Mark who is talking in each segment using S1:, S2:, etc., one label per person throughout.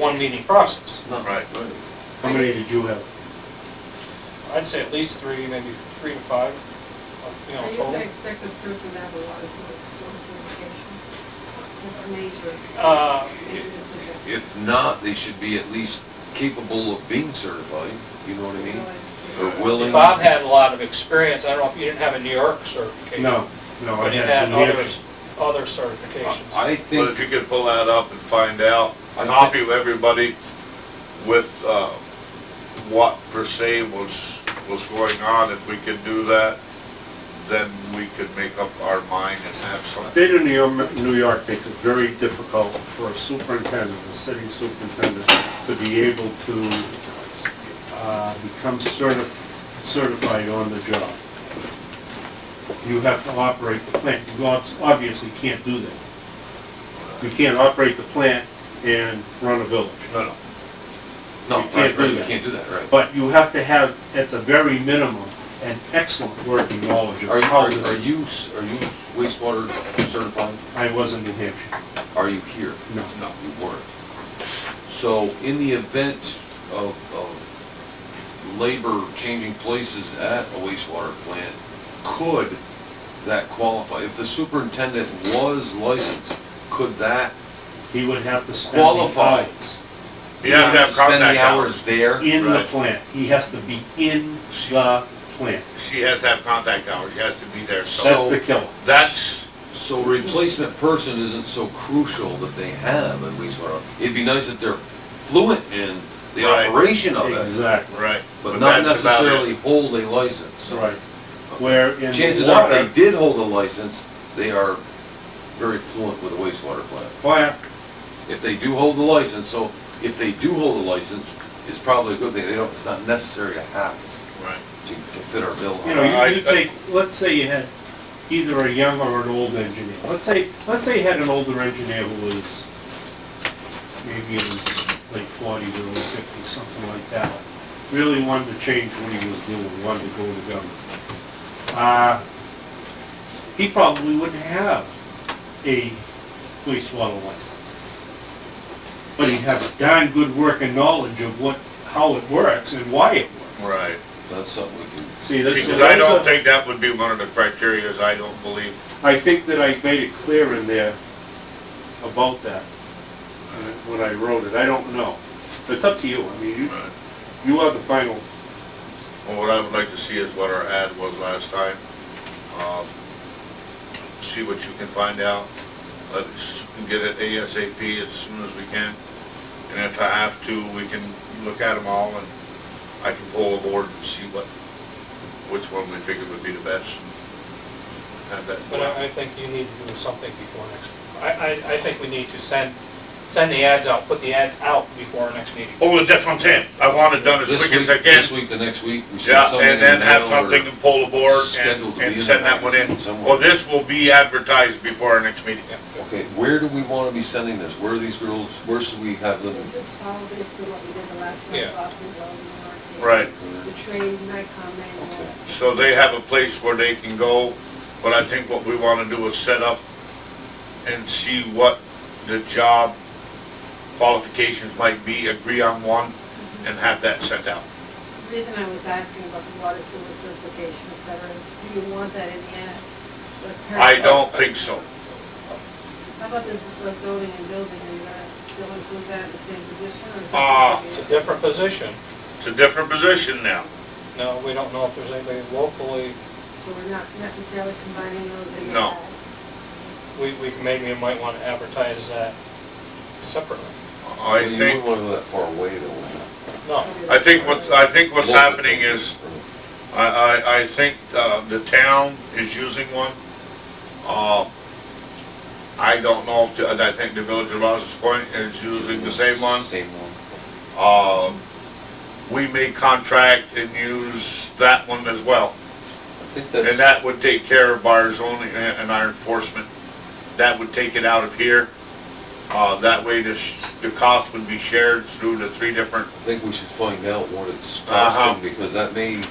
S1: one meeting process.
S2: Right.
S3: How many did you have?
S1: I'd say at least three, maybe three to five, you know,
S4: I guess I
S1: total.
S4: expect this person to have a lot of sort- source of information. That's a major,
S1: Uh,
S4: major decision.
S2: If not, they should be at least capable of being certified, you know what I mean? Or willing.
S1: Bob had a lot of experience, I don't know if you didn't have a New York certification.
S3: No, no, I
S1: But he
S3: had
S1: had
S3: New Hampshire.
S1: others, other certifications.
S2: I
S5: But if
S2: think,
S5: you could pull that up and find out,
S2: I
S5: copy everybody with, uh, what per se was, was going on, if we could do that, then we could make up our mind and have something.
S3: State of New York, New York makes it very difficult for a superintendent, a city superintendent, to be able to uh, become certi- certified on the job. You have to operate the plant. You ob- obviously can't do that. You can't operate the plant and run a village.
S5: No, no.
S2: no,
S3: you can't
S2: right,
S3: do
S2: right, you
S3: that.
S2: can't do that, right.
S3: But you have to have, at the very minimum, an excellent working knowledge
S2: Are
S3: of
S2: you,
S3: how
S2: are are
S3: this...
S2: you, s- are you wastewater certified?
S3: I was in New Hampshire.
S2: Are you here?
S3: No.
S2: No, you weren't. So in the event of, of labor changing places at a wastewater plant, could that qualify? If the superintendent was licensed, could that,
S3: He would have to spend... the
S2: Qualified.
S3: hours
S5: You have to have
S2: spend
S5: contact
S2: the hours
S5: hours.
S2: there?
S3: In the
S5: Right.
S3: plant. He has to be in the plant.
S5: She has to have contact hours, she has to be there, so
S3: That's the killer.
S5: that's,
S2: So replacement person isn't so crucial that they have at wastewater. It'd be nice if they're fluent in the
S5: Right.
S2: operation of it,
S3: Exactly,
S5: right.
S2: but not
S5: that's about it.
S2: necessarily hold a license.
S3: right. Where in
S2: Chances are, if
S3: water,
S2: they did hold a license, they are very fluent with a wastewater plant.
S3: fire,
S2: If they do hold the license, so if they do hold a license, it's probably a good thing, they don't, it's not necessary to have it
S5: Right.
S2: to, to fit our bill.
S3: you know,
S5: Uh, I-
S3: you- you
S5: I-
S3: take, let's say you had either a young or an old engineer. Let's say, let's say you had an older engineer who was maybe in his late forties or early fifties, something like that. Really wanted to change what he was doing, wanted to go to government. Uh, He probably wouldn't have a wastewater license. But he'd have a darn good working knowledge of what, how it works and why it works.
S5: Right.
S2: That's something we can,
S3: See, this is.
S5: Because I don't think that would be one of the criterias, I don't believe.
S3: I think that I made it clear in there about that, uh, when I wrote it, I don't know. It's up to you, I mean, you,
S5: Right.
S3: you are the final,
S5: Well, what I would like to see is what our ad was last time. Um, See what you can find out. Let's get it ASAP as soon as we can. And if I have to, we can look at them all and I can pull a board and see what, which one we figure would be the best. and Have that.
S1: But I, I think you need to do something before next, I, I, I think we need to send, send the ads out, put the ads out before our next meeting.
S5: Oh, that's what I'm saying. I want it done as
S2: this
S5: quick
S2: week,
S5: as I can.
S2: this week, the next week, we should
S5: Yeah,
S2: have something in
S5: and
S2: the
S5: then have
S2: mail or-
S5: something to pull the board
S2: scheduled
S5: and,
S2: to be in
S5: and
S2: the
S5: send that one in.
S2: magazine somewhere.
S5: Well, this will be advertised before our next meeting.
S2: Okay, where do we wanna be sending this? Where are these girls, where should we have
S4: We
S2: them?
S4: Oh. just follow basically what we did the last
S1: Yeah.
S4: time, Boston, Bell, New York.
S5: Right.
S4: The train, Nikon, and,
S2: Okay.
S4: uh,
S5: So they have a place where they can go, but I think what we wanna do is set up and see what the job qualifications might be, agree on one, and have that sent out.
S4: the reason I was asking about the water sewer certification, et cetera, is do you want that in the end?
S5: I don't think so.
S4: How about this, the zoning and building, are you gonna still include that in the same position, or? is that
S5: Ah,
S4: gonna be-
S1: It's a different position.
S5: It's a different position now.
S1: No, we don't know if there's anybody locally,
S4: So we're not necessarily combining those in?
S5: No.
S4: that?
S1: we, we maybe might want to advertise that separately.
S5: I
S2: You wouldn't
S5: think,
S2: wanna go that far away, though.
S1: No,
S5: I think what, I think what's happening is, I, I, I think, uh, the town is using one. Uh, I don't know if, the- I think the village of Rouse's Point is using the same one.
S2: Same one.
S5: Um, we may contract and use that one as well.
S2: I think
S5: And
S2: that's,
S5: that would take care of our zoning and and our enforcement. That would take it out of here. Uh, that way the, sh- the cost would be shared through the three different,
S2: I think we should find out what it's
S5: Uh-huh.
S2: costing, because that may.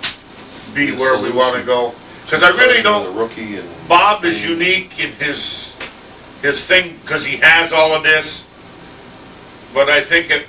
S5: be
S2: The
S5: where we
S2: solution.
S5: wanna go. Cause I really don't,
S2: The rookie and.
S5: Bob is unique in his, his thing, because he has all of this. But I think it,